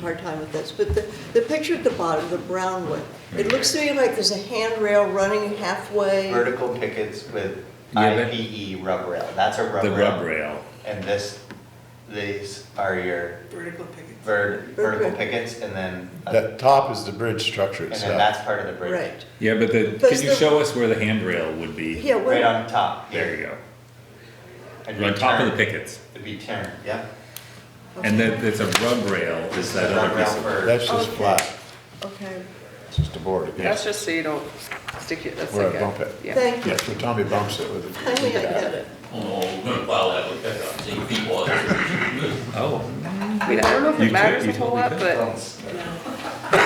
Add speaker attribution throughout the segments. Speaker 1: hard time with this, but the, the picture at the bottom, the brown one, it looks to me like there's a handrail running halfway.
Speaker 2: Vertical pickets with
Speaker 3: Yeah, but-
Speaker 2: IPE rub rail, that's a rub
Speaker 3: The
Speaker 2: rail.
Speaker 3: rub rail.
Speaker 2: And this, these are your
Speaker 4: Vertical pickets.
Speaker 2: ver- vertical
Speaker 1: Okay.
Speaker 2: pickets and then, and
Speaker 5: That top is the bridge structure
Speaker 2: then
Speaker 5: itself.
Speaker 2: that's part of the bridge.
Speaker 1: Right,
Speaker 3: Yeah, but the,
Speaker 1: But
Speaker 3: can you
Speaker 1: the-
Speaker 3: show us where the handrail would be?
Speaker 1: yeah,
Speaker 2: Right
Speaker 1: well,
Speaker 2: on top.
Speaker 3: There you go.
Speaker 2: And
Speaker 3: On
Speaker 2: be
Speaker 3: top of the
Speaker 2: turned-
Speaker 3: pickets.
Speaker 2: It'd be turned, yep.
Speaker 3: And then it's a rub rail is that
Speaker 2: The rub
Speaker 3: other
Speaker 2: rail
Speaker 3: piece of.
Speaker 2: for-
Speaker 5: That's just
Speaker 1: Okay.
Speaker 5: flat,
Speaker 1: okay,
Speaker 5: it's just a board. again.
Speaker 4: That's just so you don't stick your, that's
Speaker 5: Where I
Speaker 4: like a.
Speaker 5: bump it.
Speaker 4: yeah.
Speaker 1: thank you,
Speaker 5: Yeah, so Tommy bumps it with. a-
Speaker 1: finally I get it.
Speaker 6: Oh, we're gonna plow that with pickups, eight feet wide.
Speaker 3: Oh.
Speaker 4: I mean, I don't know if
Speaker 3: You
Speaker 4: it
Speaker 3: could-
Speaker 4: matters
Speaker 3: you
Speaker 4: a whole lot,
Speaker 3: totally
Speaker 4: but,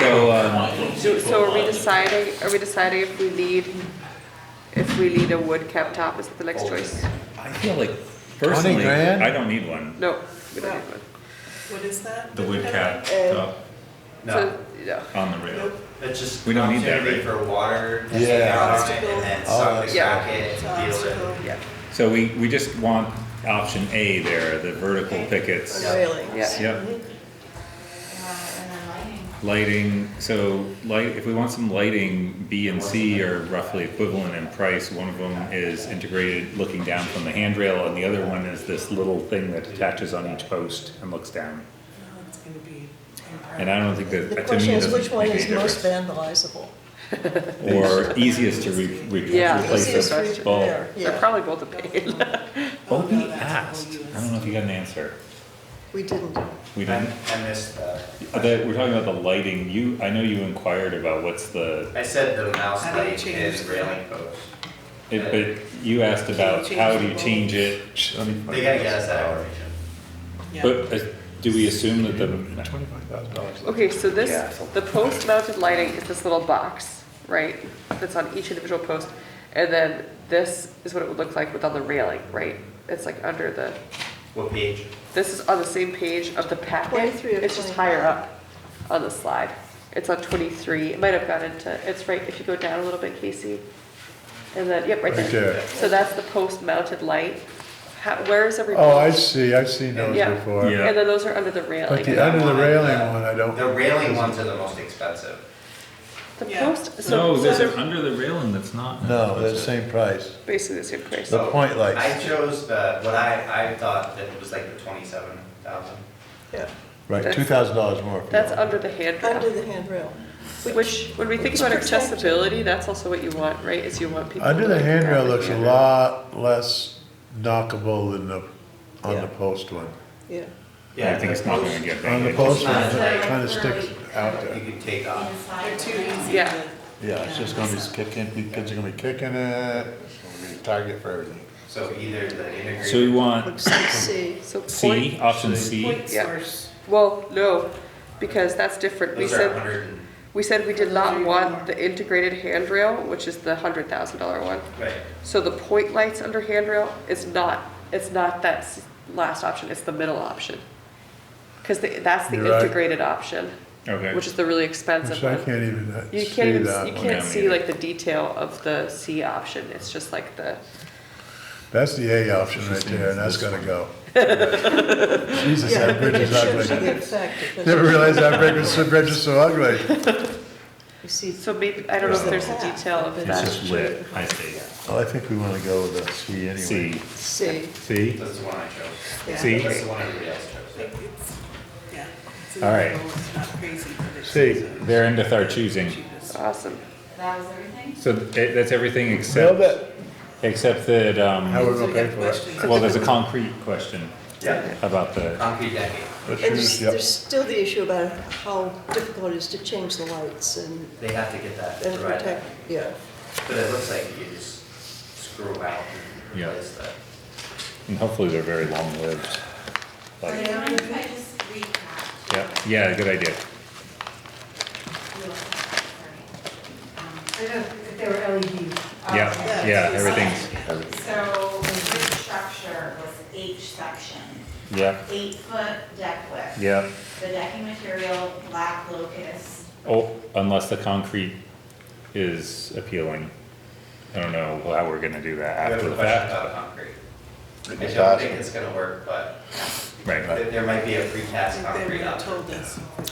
Speaker 3: So, um,
Speaker 4: do- so are we deciding, are we deciding if we need, if we need a wood cap top, is it the next choice?
Speaker 3: I feel like personally,
Speaker 5: grand?
Speaker 3: I don't need one.
Speaker 4: No, we don't need one.
Speaker 7: What is that?
Speaker 3: The wood cap
Speaker 1: Uh,
Speaker 2: No,
Speaker 4: So, no.
Speaker 3: on the rail.
Speaker 2: it's just.
Speaker 3: We don't need that, right?
Speaker 2: opportunity For water. to
Speaker 5: Yeah.
Speaker 2: sit down on it And then
Speaker 5: Obstacle.
Speaker 2: suck the
Speaker 4: Oh, yeah.
Speaker 2: socket,
Speaker 7: It's
Speaker 2: deal
Speaker 7: an
Speaker 2: with it.
Speaker 7: obstacle.
Speaker 4: yeah,
Speaker 3: So we, we just want option A there, the vertical pickets.
Speaker 1: Railings.
Speaker 4: yeah.
Speaker 3: Yep,
Speaker 1: Mm-hmm.
Speaker 7: And then lighting.
Speaker 3: lighting, so light, if we want some lighting, B and C are roughly equivalent in price. One of them is integrated looking down from the handrail and the other one is this little thing that attaches on each post and looks down.
Speaker 7: Oh, It's gonna be.
Speaker 3: And I don't think that,
Speaker 1: The
Speaker 3: to me,
Speaker 1: question
Speaker 3: it
Speaker 1: is,
Speaker 3: doesn't
Speaker 1: which one
Speaker 3: make any
Speaker 1: is most
Speaker 3: difference.
Speaker 1: vandalizable?
Speaker 3: Or easiest to re, re-
Speaker 4: Yeah.
Speaker 3: replace
Speaker 4: Easiest
Speaker 3: the
Speaker 4: to
Speaker 3: bulb.
Speaker 1: repair.
Speaker 4: They're
Speaker 1: Yeah.
Speaker 4: probably both a pain.
Speaker 3: Bobby asked, I don't know if you got an answer.
Speaker 1: We didn't,
Speaker 3: We didn't?
Speaker 2: I I missed the,
Speaker 3: Uh, that- we're talking about the lighting, you, I know you inquired about what's the,
Speaker 2: I said the mouse
Speaker 7: How do you
Speaker 2: light
Speaker 7: change
Speaker 2: is
Speaker 7: the-
Speaker 2: railing post.
Speaker 3: it- but you asked about
Speaker 7: Can you
Speaker 3: how
Speaker 7: change
Speaker 3: do you
Speaker 7: the
Speaker 3: change it?
Speaker 5: Shh, let me find
Speaker 2: They gotta get
Speaker 5: this.
Speaker 2: us that information.
Speaker 7: Yeah.
Speaker 3: But uh, do we assume that the,
Speaker 5: Twenty-five thousand dollars.
Speaker 4: Okay, so this,
Speaker 3: Yeah.
Speaker 4: the post mounted lighting is this little box, right? That's on each individual post. And then this is what it would look like without the railing, right? It's like under the,
Speaker 2: What page?
Speaker 4: this is on the same page of the packet.
Speaker 1: 23 of
Speaker 4: It's just
Speaker 1: 25.
Speaker 4: higher up on the slide. It's on twenty-three. It might have gone into, it's right, if you go down a little bit, Casey. And then, yep, right
Speaker 5: Right
Speaker 4: there.
Speaker 5: there.
Speaker 4: So that's the post mounted light. How, where is every?
Speaker 5: Oh, I
Speaker 4: post?
Speaker 5: see, I've seen those
Speaker 4: Yeah.
Speaker 5: before.
Speaker 3: Yeah.
Speaker 4: And then those are under the railing.
Speaker 5: But the under the
Speaker 2: one,
Speaker 5: railing
Speaker 2: uh,
Speaker 5: one, I don't.
Speaker 2: The railing ones are the most expensive.
Speaker 4: The
Speaker 7: Yeah.
Speaker 4: post, so,
Speaker 3: no,
Speaker 4: so
Speaker 3: there's
Speaker 4: they're
Speaker 3: an under the railing that's not.
Speaker 5: No, they're the same price.
Speaker 4: basically the same price.
Speaker 5: The
Speaker 2: So,
Speaker 5: point lights.
Speaker 2: I chose the, what I, I thought that it was like the twenty-seven thousand.
Speaker 1: yeah,
Speaker 5: Right,
Speaker 4: That's-
Speaker 5: two thousand dollars more. if you
Speaker 4: That's
Speaker 5: want.
Speaker 4: under the handrail.
Speaker 1: under the handrail.
Speaker 4: Which, when we think about accessibility, that's also what you want, right, is you want people.
Speaker 5: Under
Speaker 4: to
Speaker 5: the
Speaker 4: like
Speaker 5: handrail
Speaker 4: grab
Speaker 5: looks a
Speaker 4: it.
Speaker 5: lot less knockable than the, on
Speaker 1: Yeah.
Speaker 5: the post one.
Speaker 1: Yeah,
Speaker 3: I think it's not gonna get
Speaker 5: On the
Speaker 3: that.
Speaker 5: post
Speaker 2: not
Speaker 5: one,
Speaker 2: as
Speaker 5: it
Speaker 2: like-
Speaker 5: kinda sticks out
Speaker 2: You
Speaker 5: there.
Speaker 2: could take off.
Speaker 7: They're too easy.
Speaker 4: Yeah.
Speaker 7: to-
Speaker 5: Yeah, it's just gonna be kicking, kids are gonna be kicking it, it's gonna be a target for everything.
Speaker 2: So either the integrated.
Speaker 3: So we want
Speaker 1: looks like C.
Speaker 4: So
Speaker 3: C,
Speaker 4: point,
Speaker 3: option C,
Speaker 7: Point
Speaker 4: Yeah.
Speaker 7: source.
Speaker 4: well, no, because that's different, we
Speaker 2: Those are
Speaker 4: said,
Speaker 2: hundred and,
Speaker 4: we said we did not
Speaker 7: Those are
Speaker 4: want
Speaker 7: more.
Speaker 4: the integrated handrail, which is the hundred thousand dollar one.
Speaker 2: right,
Speaker 4: So the point lights under handrail is not, it's not that s- last option, it's the middle option. Cause the- that's the
Speaker 5: You're right.
Speaker 4: integrated option,
Speaker 3: okay,
Speaker 4: which is the really
Speaker 5: Which
Speaker 4: expensive
Speaker 5: I
Speaker 4: one.
Speaker 5: can't even uh,
Speaker 4: You
Speaker 5: see
Speaker 4: can't even,
Speaker 5: that
Speaker 4: you
Speaker 5: one.
Speaker 4: can't
Speaker 3: Yeah, me
Speaker 4: see
Speaker 3: either.
Speaker 4: like the detail of the C option, it's just like the,
Speaker 5: That's the A option right there, and that's gonna go. Jesus,
Speaker 1: Yeah,
Speaker 5: that
Speaker 1: but
Speaker 5: bridge
Speaker 1: it
Speaker 5: is
Speaker 1: shows you the
Speaker 5: ugly.
Speaker 1: effect. because
Speaker 5: Never realized that bridge was, that bridge is so ugly.
Speaker 1: You see
Speaker 4: so maybe, I don't know if there's a detail of
Speaker 3: it's
Speaker 4: that.
Speaker 3: just lit, I see,
Speaker 5: Well, I think we wanna go with a C anyway.
Speaker 3: C,
Speaker 1: C,
Speaker 3: C,
Speaker 2: that's the one I chose.
Speaker 7: Yeah.
Speaker 3: C.
Speaker 2: That's the one everybody else chose.
Speaker 7: Like, it's- yeah, it's in
Speaker 3: All
Speaker 7: the
Speaker 3: right.
Speaker 7: middle, it's not crazy, but it's
Speaker 3: C,
Speaker 7: the
Speaker 3: they're into our choosing.
Speaker 7: cheapest.
Speaker 4: Awesome.
Speaker 8: That was everything?
Speaker 3: So th- that's everything
Speaker 5: Build
Speaker 3: except,
Speaker 5: it,
Speaker 3: except that,
Speaker 5: how
Speaker 3: um,
Speaker 5: we're gonna pay for it.
Speaker 3: well, there's a concrete question
Speaker 2: Yeah,
Speaker 3: about the,
Speaker 2: concrete decking.
Speaker 5: Let's
Speaker 1: And
Speaker 5: use-
Speaker 1: there's,
Speaker 5: yep.
Speaker 1: there's still the issue about how difficult it is to change the lights and,
Speaker 2: They have to get that,
Speaker 1: and
Speaker 2: right?
Speaker 1: protect, yeah.
Speaker 2: But it looks like you just screw out and
Speaker 3: Yeah.
Speaker 2: replace that.
Speaker 3: and hopefully they're very long-lived.
Speaker 8: Do you
Speaker 3: Like,
Speaker 8: mind if I just recap?
Speaker 3: yeah, yeah, good idea.
Speaker 8: Sorry. Um, I don't know if there were E LEDs.
Speaker 3: Yeah, yeah, everything's,
Speaker 8: Um, So the bridge structure was H section,
Speaker 3: yeah,
Speaker 8: eight foot deck width.
Speaker 3: yeah.
Speaker 8: The decking material, black locust.
Speaker 3: Oh, unless the concrete is appealing. I don't know how we're gonna do that
Speaker 2: We have
Speaker 3: after
Speaker 2: a
Speaker 3: the
Speaker 2: question
Speaker 3: fact.
Speaker 2: about concrete. I
Speaker 5: It's
Speaker 2: don't
Speaker 5: awesome.
Speaker 2: think it's gonna work, but
Speaker 3: Right.
Speaker 2: there there might be a precast
Speaker 7: I think they
Speaker 2: concrete
Speaker 7: would've
Speaker 2: option.
Speaker 7: told us.